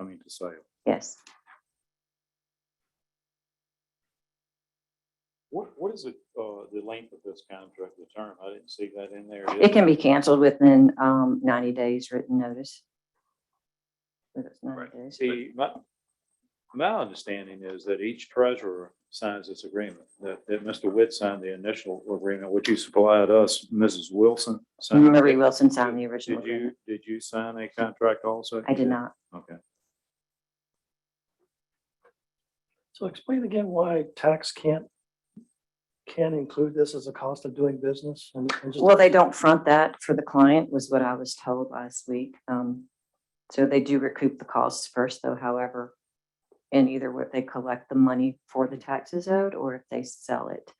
to sale. Yes. What, what is it, uh, the length of this contract, the term? I didn't see that in there. It can be canceled within um, 90 days written notice. But it's 90 Right. days. See, my, my understanding is that each treasurer signs this agreement, that, that Mr. Witt signed the initial agreement, which you supplied us, Mrs. Wilson. signed. Murray Wilson signed the original Did you, agreement. did you sign a contract also? I did not. Okay. So explain again why tax can't, can include this as a cost of doing business and. and just- Well, they don't front that for the client was what I was told last week. Um, So they do recoup the costs first though, however, and either what they collect the money for the taxes owed or if they sell it,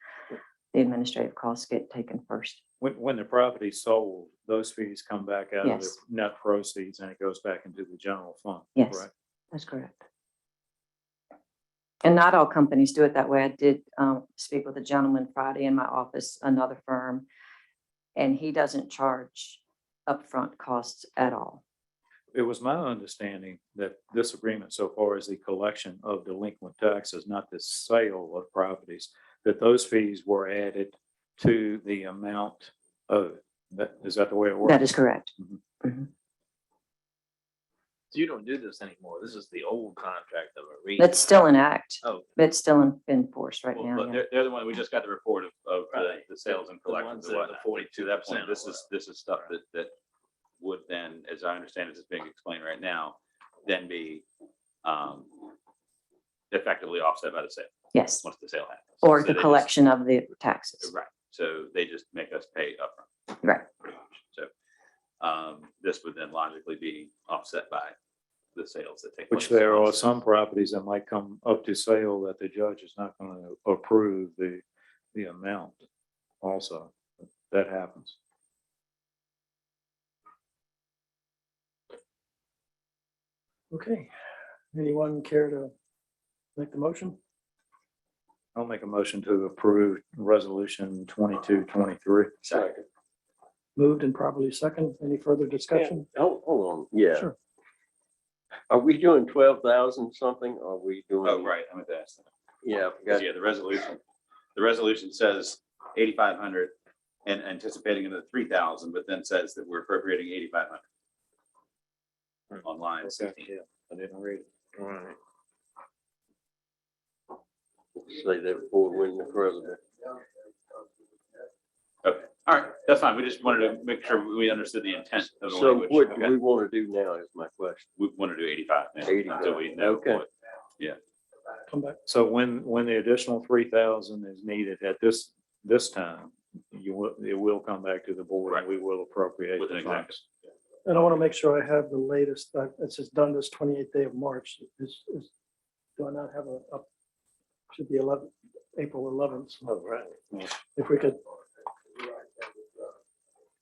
the administrative costs get taken first. When, when the property's sold, those fees come back out of the Yes. net proceeds and it goes back into the general fund. Yes. correct? That's correct. And not all companies do it that way. I did um, speak with a gentleman Friday in my office, another firm, and he doesn't charge upfront costs at all. It was my understanding that this agreement so far is the collection of delinquent taxes, not the sale of properties, that those fees were added to the amount owed. That, is that the way it works? That is correct. Mm-hmm. So you don't do this anymore. This is the old contract that we're reading. It's still in act. Oh. It's still in, in force right Well, now. But yeah. they're, they're the one, we just got the report of, of the- Right. the sales and The collections ones that and are the whatnot. To that point, 42% this or is, this is stuff that, that would then, as I understand it, is being explained right now, then be um effectively offset by the sale, Yes, once the sale happens. or So the they just- collection of the taxes. Right, so they just make us pay upfront. Right. Pretty much. So um, this would then logically be offset by the sales that take place. Which there are Also. some properties that might come up to sale that the judge is not going to approve the, the amount also. That happens. Okay, anyone care to make the motion? I'll make a motion to approve resolution twenty-two, twenty-three. Second. Moved and properly second, any further discussion? Hold, hold on, yeah. Sure. Are we doing twelve thousand something? Are we doing? Oh, right, I'm at that. Yeah, I Because forgot. yeah, the resolution, the resolution says eighty-five hundred and anticipating another three thousand, but then says that we're appropriating eighty-five hundred. On line sixteen. I didn't read it. Alright. Say that before we win the president. Okay, all right, that's fine. We just wanted to make sure we understood the intent of the So language. what do Okay. we want to do now is my question. We want to do eighty-five now, 85, until we know okay. what. Come back, So when, when the additional three thousand is needed at this, this time, you will, it will come back to the board and Right. we will appropriate With the an exact- funds. and I want to make sure I have the latest, uh, it says done this twenty-eighth day of March, is, is, do I not have a, up? Should be eleven, April eleventh. Oh, right. if we could.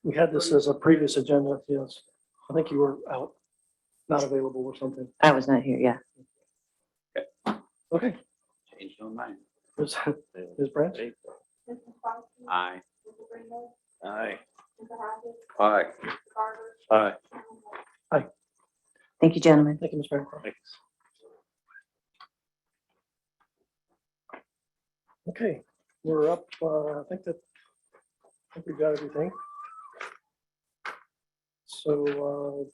We had this as a previous agenda, yes. I think you were out, not available or something. I was not here, yeah. Okay, Changed on mine. Ms. Ms. Branch, Mrs. Fox, Aye. Mr. Greenwood, Aye. Mr. Hodges, Aye. Mr. Garber, Aye. Chairman White. Thank you, gentlemen. thank you, Ms. Bancroft. Okay, we're up, uh, I think that, I think we've got everything. So,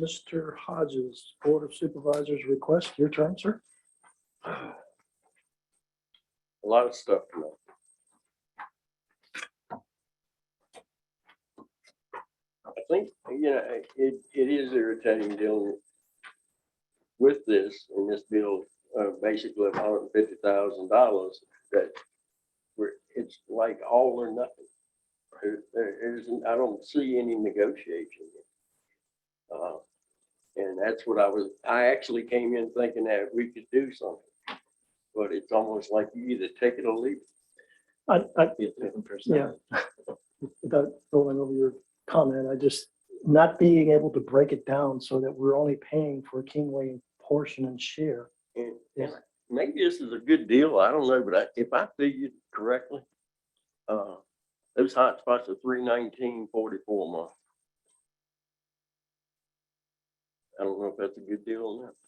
uh, Mr. Hodges, Board of Supervisors request, your turn, sir. A lot of stuff tonight. I think, you know, it, it is irritating dealing with this and this bill, uh, basically of hundred and fifty thousand dollars that we're, it's like all or nothing. There, there isn't, I don't see any negotiation. Uh, And that's what I was, I actually came in thinking that we could do something. But it's almost like you either take it or leave. I, I, Yeah. it. without going over your comment, I just, not being able to break it down so that we're only paying for Kingway portion and share. And- Yes. and Maybe this is a good deal, I don't know, but I- if I figured correctly, uh, those hot spots are three nineteen forty-four a month. I don't know if that's a good deal or not.